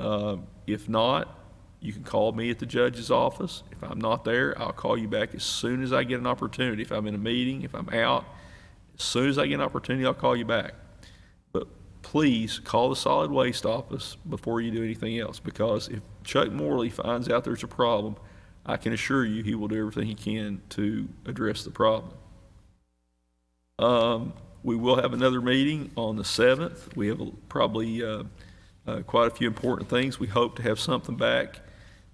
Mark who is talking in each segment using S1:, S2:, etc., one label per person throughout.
S1: Um, If not, you can call me at the judge's office. If I'm not there, I'll call you back as soon as I get an opportunity. If I'm in a meeting, if I'm out, as soon as I get an opportunity, I'll call you back. But please call the solid waste office before you do anything else, because if Chuck Morley finds out there's a problem, I can assure you, he will do everything he can to address the problem. Um, we will have another meeting on the seventh. We have a- probably, uh, uh, quite a few important things. We hope to have something back,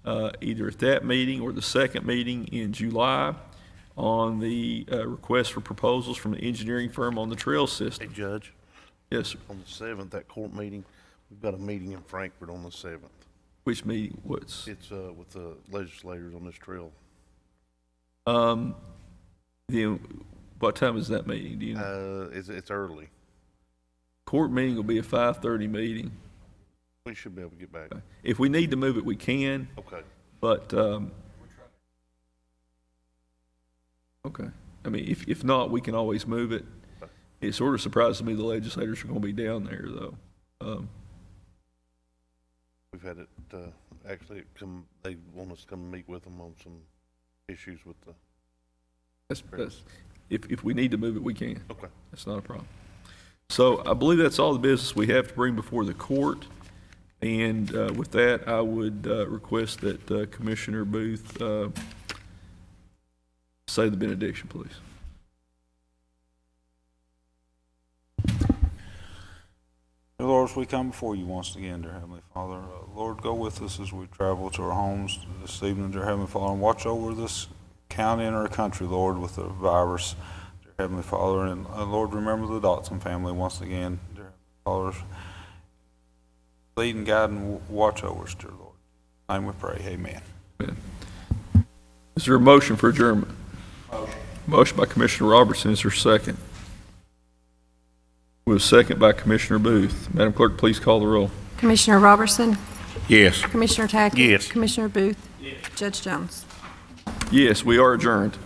S1: uh, either at that meeting or the second meeting in July on the, uh, request for proposals from the engineering firm on the trail
S2: Hey,
S1: system.
S2: Judge,
S1: Yes, sir.
S2: on the seventh, that court meeting, we've got a meeting in Frankfurt on the seventh.
S1: Which meeting, what's,
S2: It's, uh, with the legislators on this trail.
S1: um, then, what time is that meeting? Do you know?
S2: Uh, it's, it's early.
S1: Court meeting will be a five-thirty meeting.
S2: We should be able to get back.
S1: If we need to move it, we can,
S2: Okay.
S1: but, um, okay. I mean, if, if not, we can always move it. It sort of surprises me the legislators are gonna be down there, though. Um,
S2: We've had it, uh, actually, it come, they want us to come meet with them on some issues with the,
S1: that's, that's, if, if we need to move it, we can.
S2: okay.
S1: That's not a problem. So I believe that's all the business we have to bring before the court. And uh, with that, I would uh, request that uh, Commissioner Booth uh, say the benediction, please.
S3: Dear Lord, as we come before you once again, dear Heavenly Father, uh, Lord, go with us as we travel to our homes this evening, dear Heavenly Father, and watch over this county and our country, Lord, with the virus, dear Heavenly Father, and uh, Lord, remember the Dotson family once again, dear Heavenly Father. Lead and guide and w- watch over us, dear Lord. In your name we pray, amen.
S1: Is there a motion for adjournment? Motion by Commissioner Robertson, is there a second? With a second by Commissioner Booth. Madam Clerk, please call the roll.
S4: Commissioner Robertson,
S2: Yes.
S4: Commissioner Tackett.
S2: Yes.
S4: Commissioner Booth. Judge Jones.
S1: Yes, we are adjourned.